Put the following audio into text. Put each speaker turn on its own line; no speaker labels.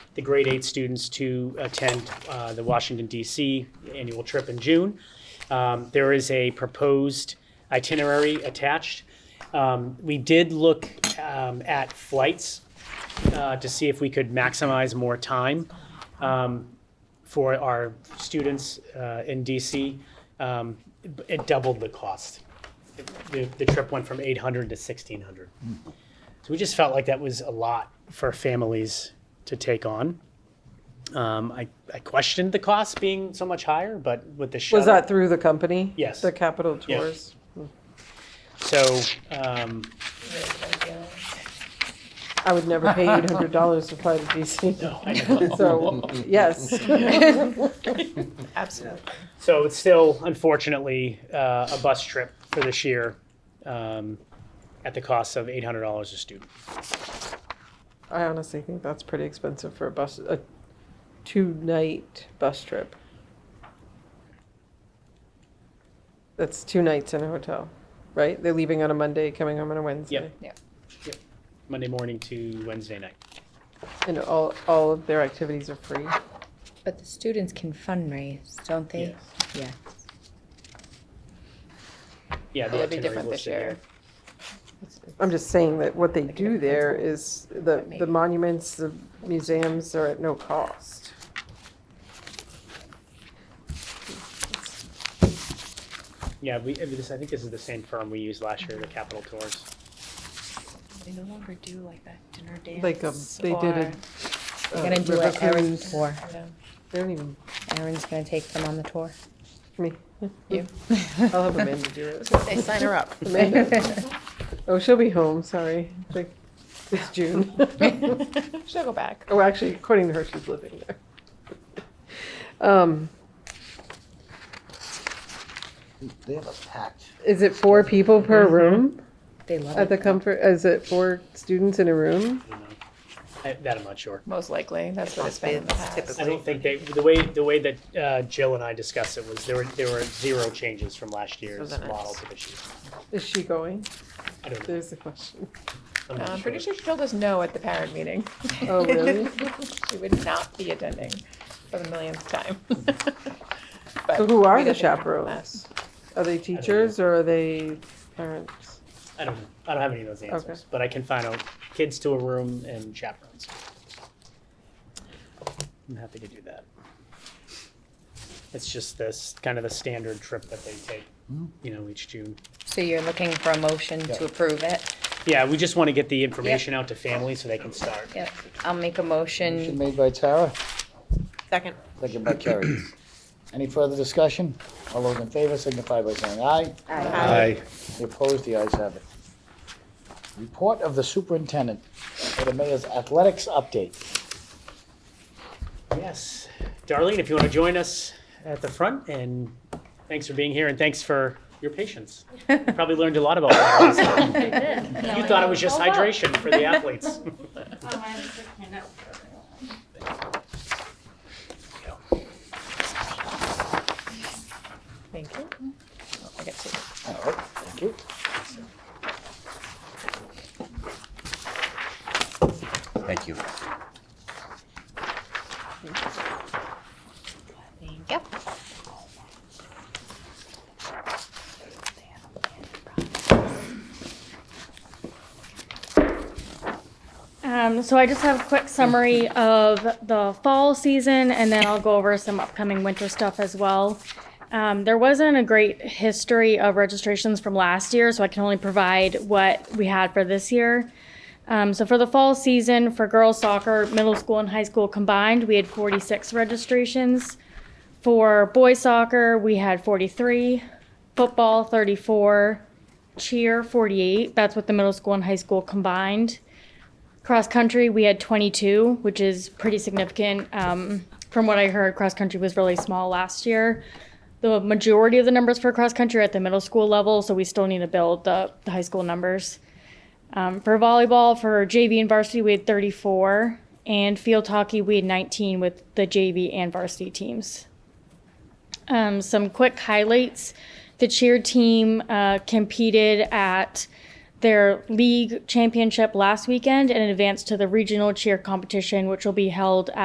the grade eight students to attend uh, the Washington DC annual trip in June. Um, There is a proposed itinerary attached. Um, We did look um, at flights uh, to see if we could maximize more time um, for our students uh, in DC. Um, It doubled the cost. The the trip went from 800 to 1,600. So we just felt like that was a lot for families to take on. Um, I I questioned the cost being so much higher, but with the shuttle.
Was that through the company?
Yes.
The Capital
Yeah.
Tours?
So, um,
I would never pay eight hundred dollars to fly to DC.
I know.
So, yes.
Absolutely.
so it's still unfortunately uh, a bus trip for this year um, at the cost of eight hundred dollars a student.
I honestly think that's pretty expensive for a bus, a two-night bus trip. That's two nights in a hotel, right? They're leaving on a Monday, coming home on a Wednesday.
Monday morning to Wednesday night.
And all, all of their activities are free.
But the students can fundraise, don't they? Yeah.
Yeah, the
It'll be
itinerary
different this
listed there.
year.
I'm just saying that what they do
it
there is, the,
Maybe.
the monuments, the museums are at no cost.
Yeah, we, I mean, this- I think this is the same firm we used last year, the Capital Tours.
They no longer do like that dinner dance.
Like, um, they did a. uh,
They're gonna do an Erin tour.
They don't even,
Erin's gonna take them on the tour.
me,
You.
I'll have Amanda do it.
They sign her up.
Amanda. Oh, she'll be home, sorry. Like, It's June.
She'll go back.
Oh, actually, according to her, she's living there. Um,
They have a pact.
is it four people per room
They love
at the
it.
comfort, is it four students in a
I
room?
don't know. I- That I'm not sure.
Most likely, that's what it's been in the past.
I don't think they, the way, the way that uh, Jill and I discussed it was there were, there were zero changes from last year's
then it's-
model to this year.
Is she going?
I don't know.
There's the question.
I'm
Uh,
not
I'm pretty
sure.
sure she told us no at the parent meeting.
Oh, really?
She would not be attending for the millionth time. But
So who are
we
the
got different from
chaperones?
last.
Are they teachers or are they parents?
I don't know. I don't have any of those answers,
Okay.
but I can find out kids to a room and chaperones. I'm happy to do that. It's just this, kind of the standard trip that they take, you know, each June.
So you're looking for a motion to approve it?
Yeah, we just want to get the information out to families so they can start.
Yep. I'll make a
Motion
motion.
made by Tara,
Second.
second by Carrie. Any further discussion? All those in favor signify by saying aye.
Aye.
Any opposed, the ayes have it. Report of the superintendent for the mayor's athletics update.
Yes. Darlene, if you want to join us at the front, and thanks for being here, and thanks for your patience. Probably learned a lot about that. You thought it was just hydration for the athletes.
Thank you. Oh, I get to.
All right, thank you.
Thank you.
Yep.
Um, so I just have a quick summary of the fall season and then I'll go over some upcoming winter stuff as well. Um, there wasn't a great history of registrations from last year, so I can only provide what we had for this year. Um, so for the fall season, for girls soccer, middle school and high school combined, we had 46 registrations. For boys soccer, we had 43, football 34, cheer 48. That's with the middle school and high school combined cross country we had 22 which is pretty significant um, from what i heard cross country was really small last year the majority of the numbers for cross country are at the middle school level so we still need to build the, the high school numbers um, for volleyball for jv and varsity we had 34 and field hockey we had 19 with the jv and varsity teams um, some quick highlights the cheer team uh, competed at their league championship last weekend and advanced to the regional cheer competition, which will be held at